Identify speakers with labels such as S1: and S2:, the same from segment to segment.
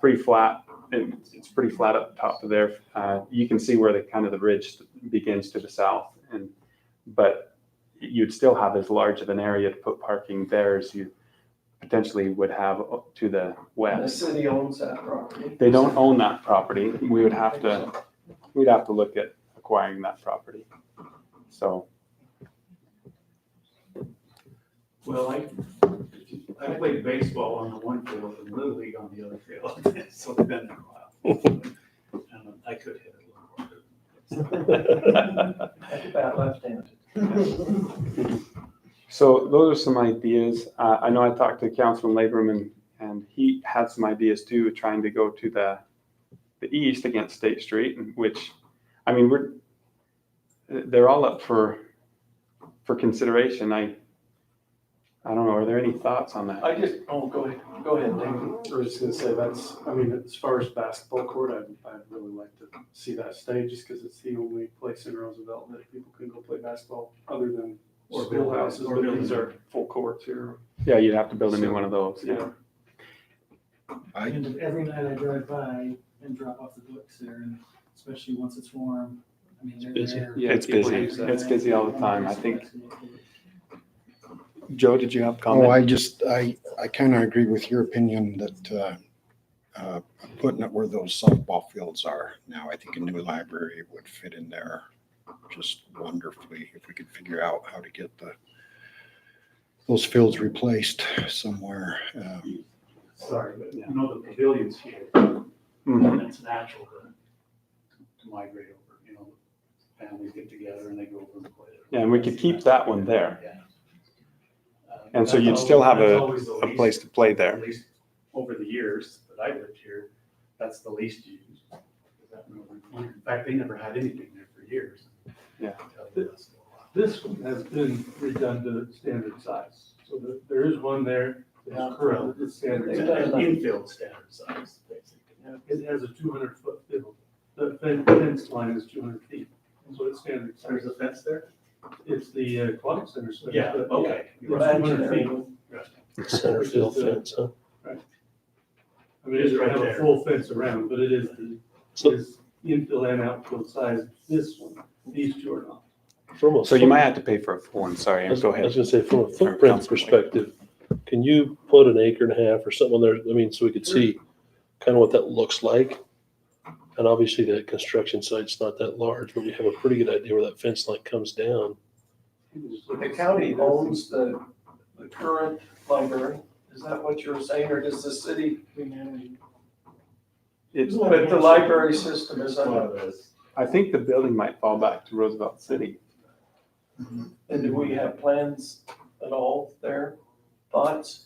S1: pretty flat. It, it's pretty flat up top of there. Uh, you can see where the kind of the ridge begins to the south, and but you'd still have as large of an area to put parking there as you potentially would have up to the
S2: The
S1: west.
S2: city owns that property.
S1: They don't own that property. We would have to we'd have to look at acquiring that property. So
S3: Well, I, I played baseball on the one field and Little League on the other field, so it's been a while. Um, I could hit it a little harder.
S2: That's about left-handed.
S1: So those are some ideas. Uh, I know I talked to Councilman Laborman, and he had some ideas too, trying to go to the the east against State Street, and which, I mean, we're they're all up for for consideration. I I don't know. Are there any thoughts on that?
S4: I just, oh, go ahead.
S2: Go ahead, Dave.
S4: I was just gonna say, that's, I mean, as far as basketball court, I'd, I'd really like to see that stay, just because it's the only place in Roosevelt that people can go play basketball, other than
S3: Or
S4: schoolhouses,
S3: buildings, or
S4: but these
S3: buildings.
S4: are full courts here.
S1: Yeah, you'd have to build a new one of those.
S4: Yeah.
S5: I-
S6: And every night I drive by and drop off the books there, and especially once it's warm, I mean, they're
S7: busy.
S6: there.
S1: Yeah, it's
S6: People
S1: busy.
S6: use that.
S1: It's busy all the time. I think-
S7: Joe, did you have a
S5: Oh,
S7: comment?
S5: I just, I, I kind of agree with your opinion that, uh, uh, putting it where those softball fields are now, I think a new library would fit in there just wonderfully if we could figure out how to get the, those fields replaced somewhere. Um,
S3: Sorry, but you know, the pavilion's here, and
S1: Mhm.
S3: it's natural to, to migrate over, you know, families get together and they go over and play. there.
S1: Yeah, and we could keep that one there.
S3: Yeah. Uh,
S1: And so
S3: that's
S1: you'd still have
S3: always-
S1: a-
S3: that's always the
S1: A
S3: least-
S1: place to play
S3: at
S1: there.
S3: least over the years that I lived here, that's the least used. In fact, they never had anything there for years.
S1: Yeah.
S3: Until the last little while.
S8: This one has been redone to standard size, so there- there is one there that's current, it's standard.
S3: It's
S8: size.
S3: an Infield standard size, basically.
S8: Yeah, It has a two hundred foot field, the fen- fence line is two hundred feet, so it's standard size.
S3: There's a fence there?
S8: It's the uh, aquatic center. so-
S3: Yeah, okay.
S8: It's
S3: You're
S8: two
S3: right.
S8: hundred feet, uh,
S7: Center field fence, huh?
S8: I mean, it doesn't have a full fence around, but it is the,
S7: So-
S8: is infill and outfield size, this one, these two are not.
S9: From a.
S1: So you might
S9: foot-
S1: have to pay for a full one. Sorry,
S9: I was
S1: go ahead.
S9: I was gonna say, from a
S1: Sorry, Councilman
S9: footprint
S1: Blake.
S9: perspective, can you put an acre and a half or something there, I mean, so we could see kind of what that looks like? And obviously the construction site's not that large, but we have a pretty good idea where that fence line comes down.
S2: The county owns the, the current library, is that what you're saying, or does the city?
S1: It's
S2: But the library system is,
S3: One
S2: under-
S3: of those.
S1: I think the building might fall back to Roosevelt City.
S2: and do we have plans at all there, thoughts?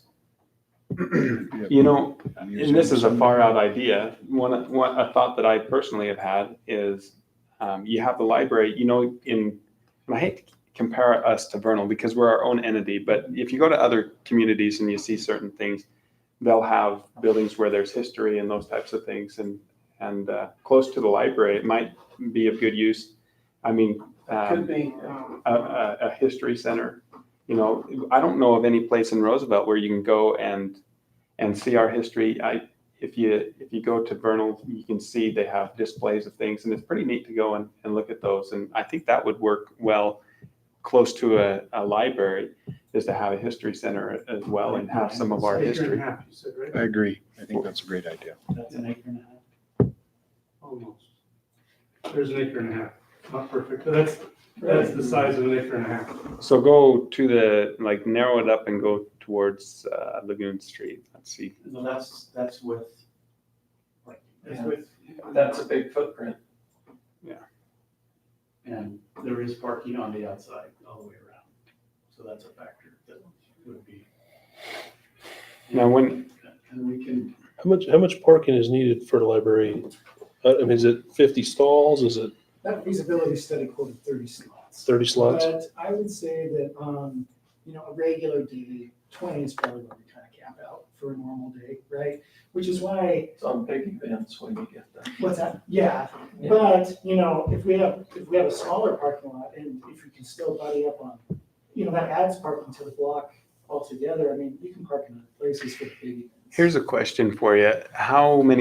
S1: You know,
S5: using
S1: and this is a
S5: some-
S1: far out idea. One, one, a thought that I personally have had is um, you have the library, you know, in, and I hate to compare us to Vernal because we're our own entity, but if you go to other communities and you see certain things, they'll have buildings where there's history and those types of things. And, and uh, close to the library, it might be of good use. I mean, um,
S2: Could be, um,
S1: a, a, a history center. You know, I don't know of any place in Roosevelt where you can go and and see our history. I if you if you go to Vernal, you can see they have displays of things, and it's pretty neat to go and, and look at those. And I think that would work well close to a, a library is to have a history center as well and have some of our
S8: Acre and a
S1: history.
S8: half, you said, right?
S5: I agree. I think that's a great idea.
S3: That's an acre and a half.
S8: Almost. There's an acre and a half, not perfect, but that's, that's the size of an acre and a half.
S1: So go to the like narrow it up and go towards uh, Lagoon Street. Let's see.
S3: No, that's, that's with, like, that's
S2: Yeah.
S3: with,
S2: that's a big footprint.
S3: and there is parking on the outside all the way around. So that's a factor that would be.
S1: Now when
S3: And we can
S9: How much, how much parking is needed for the library? Uh, I I mean, is it fifty stalls? Is it
S6: That feasibility study quoted thirty slots.
S9: thirty slots?
S6: But I would say that, um, you know, a regular day, twenty is probably where we kind of cap out for a normal day, right? Which is why,
S2: Some big events when you get there.
S6: what's that, yeah, but, you know, if we have, if we have a smaller parking lot and if you can still buddy up on, you know, that adds parking to the block altogether, I mean, you can park in other places for the big events.
S1: here's a question for you: How many